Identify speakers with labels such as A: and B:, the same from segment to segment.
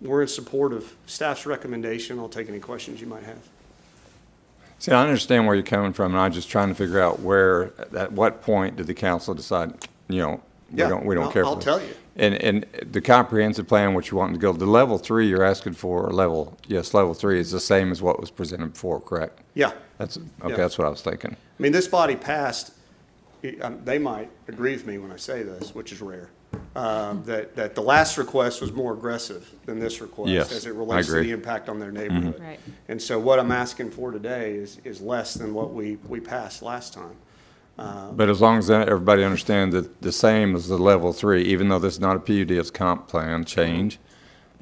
A: we're in support of staff's recommendation. I'll take any questions you might have.
B: See, I understand where you're coming from, and I'm just trying to figure out where, at what point did the council decide, you know, we
A: Yeah,
B: don't, we don't
A: I'll-
B: care for
A: I'll
B: this?
A: tell you.
B: And, and the comprehensive plan, what you want to go, the level three you're asking for, or level, yes, level three is the same as what was presented before, correct?
A: Yeah,
B: That's,
A: Yeah.
B: okay, that's what I was thinking.
A: I mean, this body passed, it- um, they might agree with me when I say this, which is rare, uh,
B: Hmm.
A: that, that the last request was more aggressive than this request.
B: Yes,
A: As it
B: I
A: relates to
B: agree. Mm-hmm.
A: the impact on their neighborhood.
C: Right.
A: And so what I'm asking for today is, is less than what we, we passed last time.
B: But as long as everybody understands that the same as the level three, even though this is not a PUD, it's comp plan change,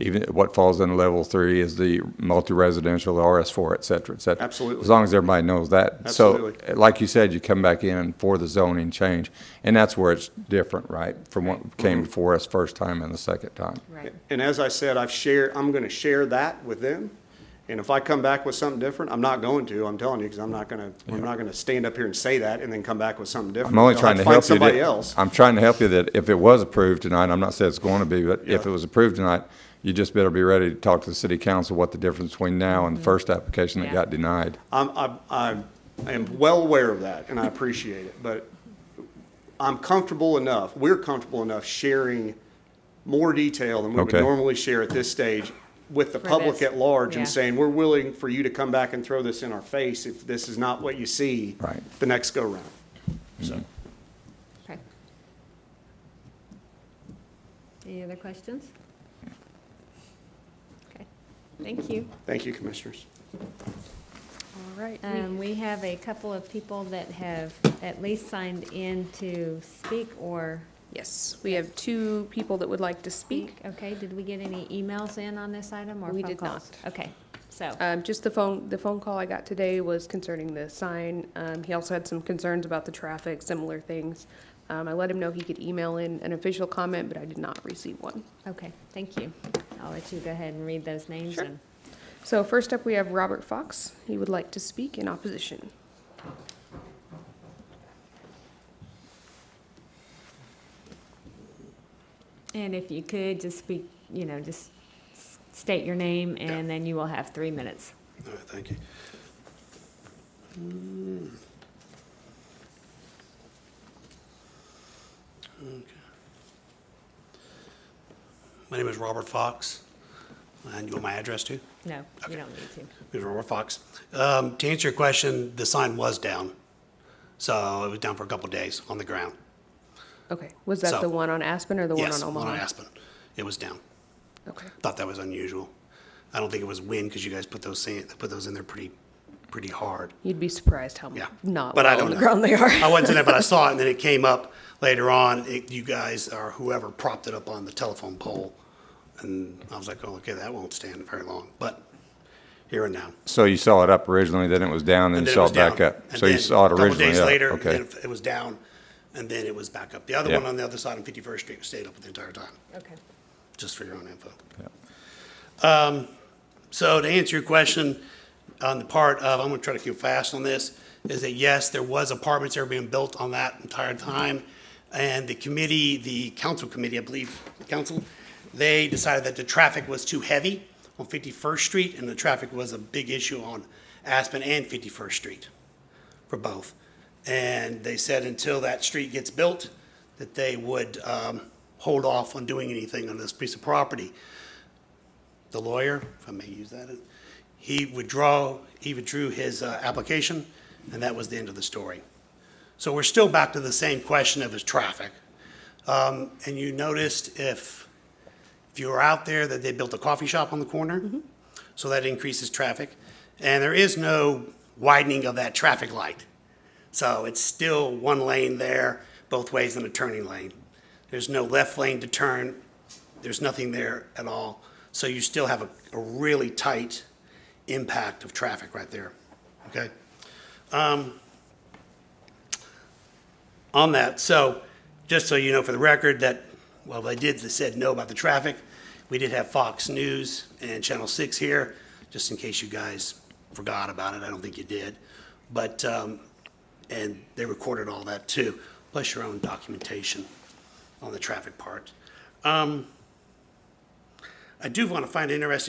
B: even what falls in level three is the multi-residential, the RS four, et cetera, et cetera.
A: Absolutely.
B: As long as everybody knows that.
A: Absolutely.
B: So, like you said, you come back in for the zoning change, and that's where it's different, right? From what came before us first time and the second time.
C: Right.
A: And as I said, I've shared, I'm going to share that with them. And if I come back with something different, I'm not going to, I'm telling you, because I'm not going to, I'm not going to stand up here and say that and then come back with something different.
B: I'm only
A: They'll
B: trying
A: have
B: to
A: find
B: help you.
A: Somebody
B: that-
A: else.
B: I'm trying to help you that if it was approved tonight, I'm not saying it's going to be, but if
A: Yeah.
B: it was approved tonight, you just better be ready to talk to the city council what the difference between now
D: Mm-hmm.
B: and the first application that
C: Yeah.
B: got denied.
A: I'm, I'm- I'm, I am well aware of that and I appreciate it, but I'm comfortable enough, we're comfortable enough sharing more detail than we would
B: Okay.
A: normally share at this stage with the
C: For
A: public
C: this,
A: at large
C: yeah.
A: and saying, we're willing for you to come back and throw this in our face if this is not what you see
B: Right. Mm-hmm.
A: the next go round. So.
C: Okay. Any other questions? Okay, thank you.
A: Thank you, Commissioners.
C: All right. Um, we have a couple of people that have at least signed in to speak or
E: Yes, we have two people that would like to
C: speak.
E: speak.
C: Okay, did we get any emails in on this item or
E: We
C: phone
E: did
C: calls? Okay, so,
E: Um, just the phone, the phone call I got today was concerning the sign. Um, he also had some concerns about the traffic, similar things. Um, I let him know he could email in an official comment, but I did not receive one.
C: okay, thank you. I'll let you go ahead and read those names
E: Sure.
C: and.
E: So first up, we have Robert Fox. He would like to speak in opposition.
C: And if you could, just speak, you know, just s- state your name, and then you will have three minutes.
D: All right, thank you. Mm. Okay. My name is Robert Fox, and you want my address too?
C: No, you don't need to.
D: Mr. Robert Fox. Um, To answer your question, the sign was down. So it was down for a couple of days on the ground.
E: Okay, was that
D: So-
E: the one on Aspen or the one on
D: Yes,
E: Omaha?
D: one on Aspen. It was down.
E: Okay,
D: Thought that was unusual. I don't think it was wind because you guys put those, sand- put those in there pretty, pretty hard.
E: you'd be surprised how
D: Yeah.
E: not
D: But I
E: well
D: don't
E: on the
D: know.
E: ground they are.
D: I wasn't in it, but I saw it, and then it came up later on. It, you guys or whoever propped it up on the telephone pole, and I was like, "Oh, okay, that won't stand very long." But here and now,
B: So you saw it up originally, then it was down, then
D: and
B: you
D: then
B: saw
D: was
B: it back
D: down.
B: up.
D: And
B: So you
D: then
B: saw it
D: a couple
B: originally
D: days
B: up,
D: later,
B: okay.
D: it, it was down, and then it was back up. The other
B: Yeah.
D: one on the other side on 51st Street stayed up the entire time
C: Okay.
D: just for your own info. Um, So to answer your question, on the part of, I'm gonna try to keep fast on this, is that yes, there was apartments that were being built on that entire time. And the committee, the council committee, I believe, council, they decided that the traffic was too heavy on 51st Street, and the traffic was a big issue on Aspen and 51st Street for both. And they said until that street gets built, that they would um, hold off on doing anything on this piece of property. The lawyer, if I may use that, he withdraw, he withdrew his uh, application, and that was the end of the story. So we're still back to the same question of his traffic. Um, And you noticed if, if you were out there, that they built a coffee shop on the corner? so that increases traffic. And there is no widening of that traffic light. So it's still one lane there, both ways in a turning lane. There's no left lane to turn, there's nothing there at all. So you still have a, a really tight impact of traffic right there, okay? Um, On that, so, just so you know for the record, that, well, they did, they said no about the traffic. We did have Fox News and Channel 6 here, just in case you guys forgot about it, I don't think you did. But, um, and they recorded all that too, plus your own documentation on the traffic part. Um, I do want to find it interesting